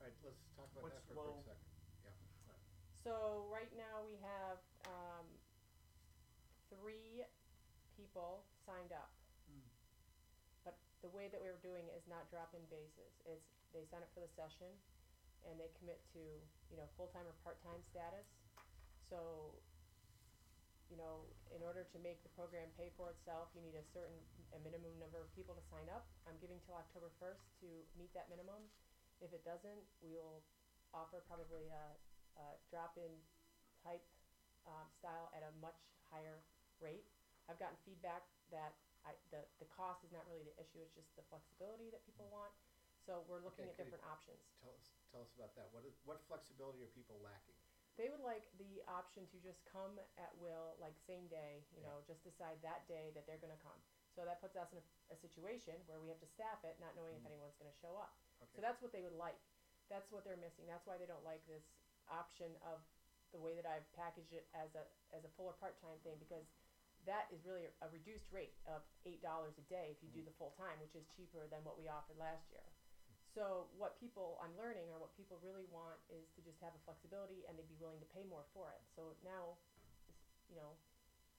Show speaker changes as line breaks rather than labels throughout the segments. let's talk about
What's
that for a
low?
quick second.
So right now we have um, three people signed up.
Mm.
But the way that we're doing it is not drop-in basis. It's they sign up for the session, and they commit to you know full-time or part-time status. So, you know, in order to make the program pay for itself, you need a certain a minimum number of people to sign up. I'm giving till October first to meet that minimum. If it doesn't, we will offer probably a uh, drop-in type um, style at a much higher rate. I've gotten feedback that I, the, the cost is not really the issue, it's just the flexibility that people want. So we're looking
Okay,
at
could you-
different options.
Tell us, tell us about that. What is, what flexibility are people lacking?
They would like the option to just come at will, like same day, you
Yeah.
know, just decide that day that they're going to come. So that puts us in a, a situation where we have to staff it, not knowing if anyone's going to show up. So
Okay,
that's what they would like. That's what they're missing. That's why they don't like this option of the way that I've packaged it as a as a full or part time thing because that is really a reduced rate of eight dollars a day if you do the full time, which is cheaper than what we offered last year. So what people I'm learning or what people really want is to just have a flexibility and they'd be willing to pay more for it. So now, you know,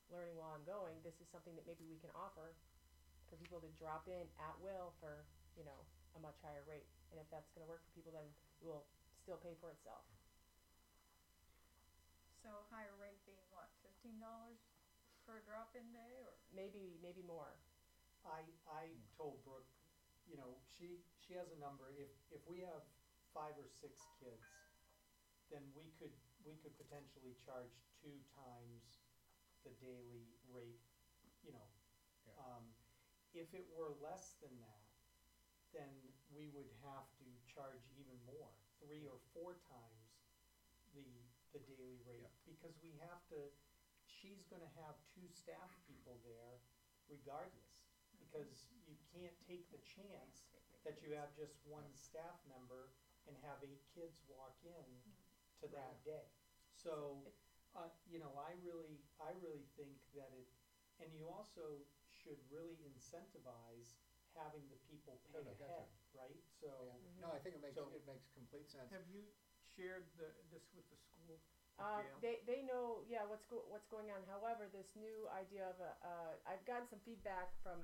learning while I'm going, this is something that maybe we can offer for people to drop in at will for you know a much higher rate. And if that's going to work for people, then it will still pay for itself.
So higher rate being what, fifteen dollars per drop-in day or?
Maybe, maybe more.
I, I told Brooke, you know, she, she has a number, if, if we have five or six kids, then we could, we could potentially charge two times the daily rate, you know.
Yeah.
Um, if it were less than that, then we would have to charge even more, three or four times the, the daily rate.
Yeah.
Because we have to, she's gonna have two staff people there regardless, because you can't take the chance that you have just one staff member and have eight kids walk in to that day. So, uh, you know, I really, I really think that it, and you also should really incentivize having the people
No, no,
pay
gotcha.
ahead, right? So,
Yeah. No, I think it makes,
So-
it makes complete sense.
Have you shared the, this with the school?
Um,
Gail?
they, they know, yeah, what's go- what's going on. However, this new idea of a, uh, I've gotten some feedback from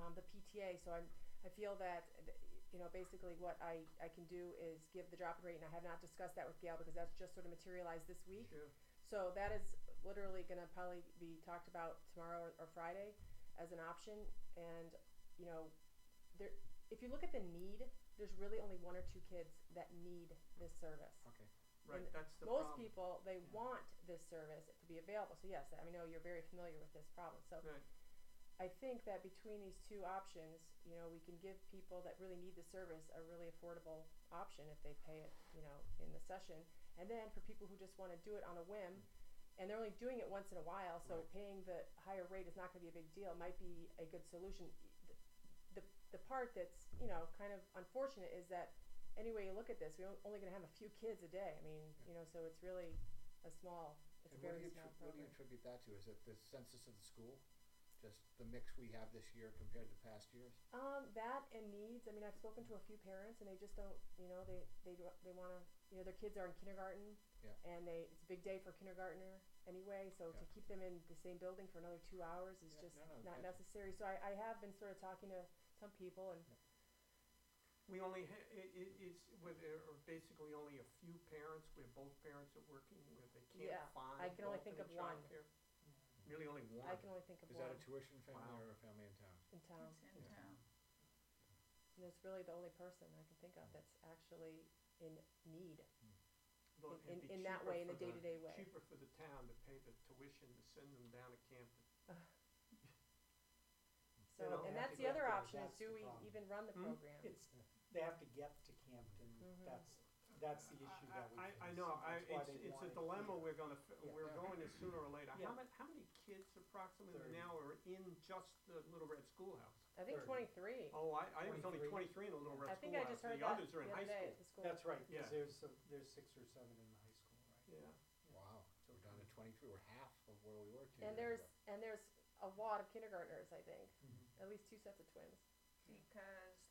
um, the PTA, so I'm I feel that th- you know basically what I, I can do is give the drop in rate, and I have not discussed that with Gail because that's just sort of materialized this week.
Sure.
So that is literally going to probably be talked about tomorrow or, or Friday as an option. And you know, there if you look at the need, there's really only one or two kids that need this service.
Okay,
Right,
And
that's the problem.
Most people they
Yeah.
want this service to be available. So yes, I know you're very familiar with this problem. So
Right.
I think that between these two options, you know, we can give people that really need the service a really affordable option if they pay it, you know, in the session. And then for people who just want to do it on a whim, and they're only doing it once in a while, so
Right.
paying the higher rate is not going to be a big deal. Might be a good solution. The, the the part that's you know kind of unfortunate is that any way you look at this, we're only going to have a few kids a day. I mean, you know, so it's really a small.
and
It's a
what do
very
you,
small
attri- what do
program.
you attribute that to? Is it the census of the school? Just the mix we have this year compared to past years?
Um, that and needs. I mean, I've spoken to a few parents, and they just don't. You know, they they do- they want to. You know, their kids are in kindergarten.
Yeah.
And they it's a big day for kindergartner anyway, so to
Yeah.
keep them in the same building for another two hours is
Yeah,
just
no, no,
not
gotcha.
necessary. So I, I have been sort of talking to some people, and
We only ha- i- i- it's, where there are basically only a few parents, where both parents are working, where they
Yeah,
can't find.
I can only think of
alternate
one.
childcare. Really only one.
I can only think of
Is
one
that a tuition family
Wow.
or a family in town?
in town.
It's in
Yeah.
town.
And it's really the only person I can think of that's actually in need.
But
in-
it'd be
in that
cheaper
way, in
for
a day-to-day way.
Cheaper for the town to pay the tuition to send them down to Camden.
So,
don't
and
have to
that's the
go
other
there,
option is
that's
do
the
we
problem.
even run the
Hmm?
program?
it's, they have to get to Camden,
Mhm.
that's, that's the issue
Uh, I-
that we.
I, I
face.
know, I,
That's why
it's,
they
it's
want
a
it
dilemma
here.
we're gonna, f-
Yeah.
we're
Yeah.
going to sooner or later.
Yeah.
How many, how many kids approximately
Thirty.
now are in just the Little Red Schoolhouse?
I think
thirty.
23.
Oh, I, I think it's only
23.
twenty-three in the Little
I
Red
think I
Schoolhouse,
just heard
the
that
others are in
the
high
other day
school.
at the school.
That's right,
Yeah.
cause there's, some- there's six or seven in the high school, right?
Yeah.
Wow, so we're down to twenty-three, we're half of where we were two years ago.
And there's and there's a lot of kindergartners, I think.
Mm-hmm.
Mhm.
At least two sets of twins.
Because